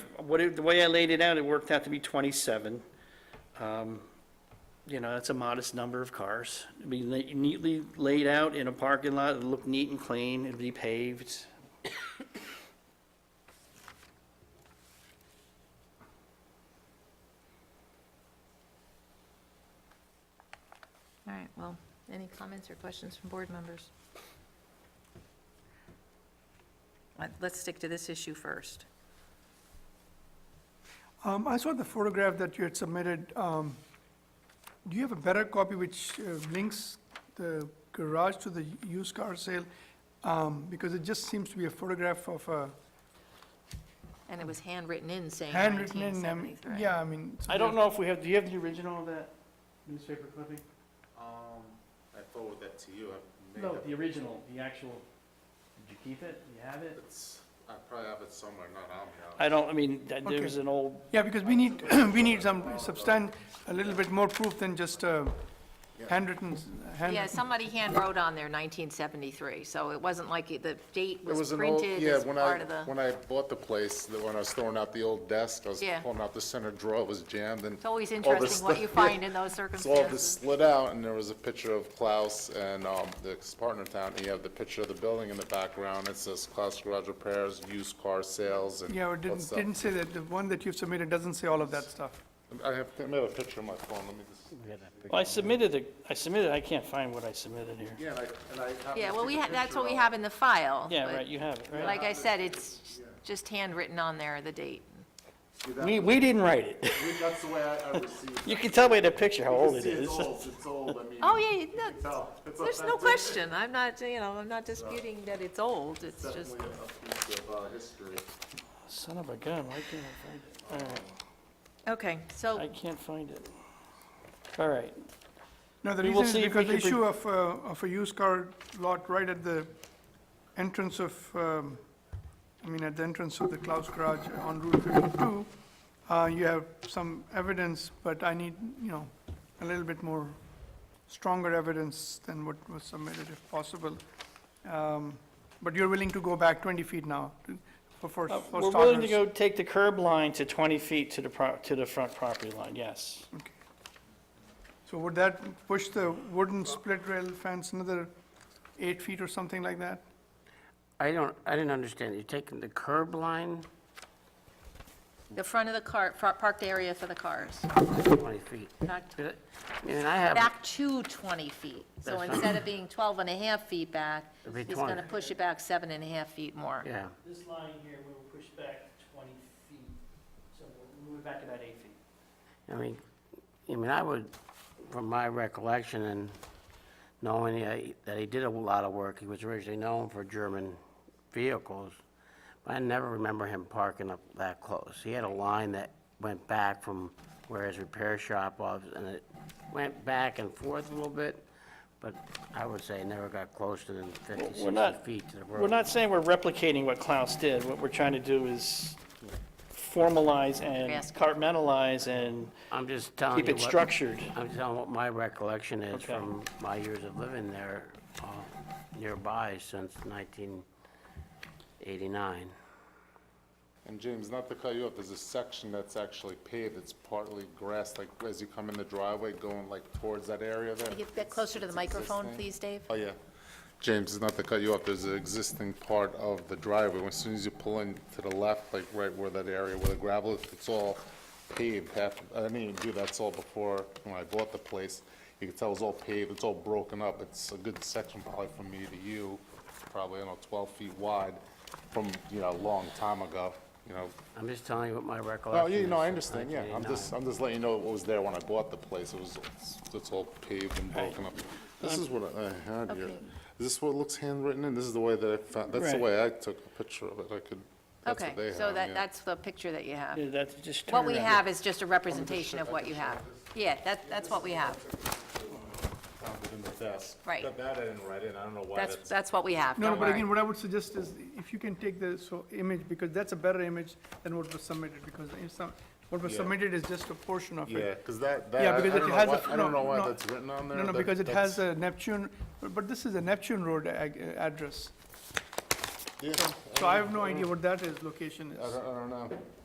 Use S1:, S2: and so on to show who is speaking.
S1: what, it- the way I laid it out, it worked out to be 27. Um, You know, that's a modest number of cars. It'd be la- neatly laid out in a parking lot, it'd look neat and clean, it'd be paved.
S2: All right, well, any comments or questions from board members? Let- Let's stick to this issue first.
S3: Um, I saw the photograph that you had submitted. Um, do you have a better copy which uh, links the garage to the used car sale? Um, because it just seems to be a photograph of a
S2: And it was handwritten in saying
S3: handwritten in, um,
S2: 1973.
S3: yeah, I mean. it's
S1: I don't
S3: weird.
S1: know if we have, do you have the original of that newspaper clipping?
S4: Um, I forward that to you, I may
S1: No,
S4: have,
S1: the original, the actual, did you keep it? Do you have it?
S4: it's, I probably have it somewhere, not on me. I'll-
S1: I don't, I mean, th-
S3: Okay.
S1: there's an old,
S3: Yeah, because we need, we need some substan, a little bit more proof than just, uh, handwritten, uh, handwritten.
S2: Yeah, somebody hand wrote on there 1973, so it wasn't like it- the date
S4: It
S2: was
S4: an old-
S2: printed
S4: yeah,
S2: as
S4: when I-
S2: part of the,
S4: When I bought the place, the- when I was throwing out the old desk, I was
S2: Yeah.
S4: pulling out the center drawer, it was jammed and.
S2: it's always
S4: all this
S2: interesting what you
S4: stuff-
S2: find in those
S4: It's all this
S2: circumstances.
S4: slid out, and there was a picture of Klaus and, um, the partner town, and you have the picture of the building in the background, it says Klaus Garage Repairs, used car sales, and.
S3: Yeah, it
S4: all
S3: didn't,
S4: stuff.
S3: didn't say that, the one that you've submitted doesn't say all of that stuff.
S4: I have, I have a picture on my phone, let me just.
S1: well, I submitted, the- I submitted, I can't find what I submitted here.
S4: Yeah, and I, and I happened
S2: Yeah,
S4: to
S2: well,
S4: take
S2: we,
S4: a
S2: ha- that's
S4: picture
S2: what we
S4: of-
S2: have in the file.
S1: Yeah,
S2: but
S1: right, you have it, right?
S2: Like I said, it's just handwritten on there, the date.
S4: See, that-
S1: We, we didn't write it.
S4: That's the way I, I received it.
S1: You can tell by the picture how
S4: You
S1: old
S4: can
S1: it
S4: see
S1: is.
S4: It's old, it's old, I mean.
S2: Oh, yeah,
S4: you can
S2: no,
S4: tell. It's a-
S2: There's no
S4: that's
S2: question, I'm not, you know, I'm not disputing that it's old, it's just,
S4: Definitely a piece of, uh, history.
S1: Son of a gun, why can't I find it?
S2: okay,
S1: All right, I
S2: so,
S1: can't find it. All right,
S3: No, the
S1: We will
S3: reason is
S1: see if we
S3: because the
S1: can bring-
S3: issue of, uh, of a used car lot right at the entrance of, um, I mean, at the entrance of the Klaus Garage on Route 52, uh, you have some evidence, but I need, you know, a little bit more stronger evidence than what was submitted if possible. Um, But you're willing to go back 20 feet now to- for, for
S1: Uh, we're
S3: for
S1: willing to
S3: starters?
S1: go take the curb line to 20 feet to the, pro- to the front property line, yes.
S3: So would that push the wooden split rail fence another eight feet or something like that?
S5: I don't, I didn't understand. You're taking the curb line
S2: the front of the car, fro- parked area for the cars,
S5: 20 feet.
S2: not
S5: I mean, I have,
S2: back to 20 feet. So
S5: That's
S2: instead of being 12 and a half feet back,
S5: It'll be
S2: he's going to
S5: 20.
S2: push it back seven and a half feet more.
S5: yeah,
S1: This line here, we will push back 20 feet, so we'll move back about eight feet.
S5: I mean, I mean, I would, from my recollection and knowing he- that he did a lot of work, he was originally known for German vehicles, but I never remember him parking up that close. He had a line that went back from where his repair shop was, and it went back and forth a little bit, but I would say never got closer than 50,
S1: We're not,
S5: 60 feet to the road.
S1: we're not saying we're replicating what Klaus did. What we're trying to do is formalize and
S2: Yes.
S1: compartmentalize and
S5: I'm just telling you
S1: keep
S5: what...
S1: it structured.
S5: I'm just telling what my recollection is
S1: Okay.
S5: from my years of living there, uh, nearby since 1989.
S4: And James, not to cut you off, there's a section that's actually paved, it's partly grass, like, as you come in the driveway, going like towards that area there.
S2: Can you get closer to the
S4: It's
S2: microphone,
S4: existing.
S2: please, Dave?
S4: Oh, yeah. James, not to cut you off, there's an existing part of the driveway. As soon as you pull in to the left, like right where that area where the gravel is, it's all paved. Half, I didn't even do that, it's all before, when I bought the place. You can tell it's all paved, it's all broken up. It's a good section probably from me to you, probably, I don't know, 12 feet wide from, you know, a long time ago, you know.
S5: I'm just telling you what my
S4: Oh, No,
S5: recollection is.
S4: you know, I
S5: since
S4: understand, yeah. I'm just,
S5: 1989.
S4: I'm just letting you know what was there when I bought the place. It was, it's- it's all paved and broken up. This is what I I had here. Is this what looks handwritten in? This is the way that I found, that's the
S1: Right.
S4: way I took a picture of it. I could, that's
S2: Okay,
S4: what they have.
S2: so that,
S4: yeah.
S2: that's the picture that you have.
S1: Yeah, That's just turn
S2: What we
S1: around.
S2: have is just a representation of what you have. Yeah, that, that's what we have.
S4: Found it in the desk.
S2: Right.
S4: That- That I didn't write in. I don't know why
S2: That's,
S4: that's.
S2: that's what we have,
S3: No,
S2: don't
S3: but
S2: worry.
S3: again, what I would suggest is if you can take the, so, image, because that's a better image than what was submitted, because if some, what was
S4: Yeah.
S3: submitted is just a portion of
S4: Yeah,
S3: it.
S4: because that, that,
S3: Yeah,
S4: I I
S3: because it
S4: don't know
S3: has a
S4: why, I don't
S3: no,
S4: know why
S3: no.
S4: that's written on there.
S3: No, no,
S4: That-
S3: because it
S4: that's-
S3: has a Neptune, but but this is a Neptune Road ag- uh, address,
S4: yeah,
S3: so I have no idea what that is, location
S4: I
S3: is.
S4: don't, I don't know.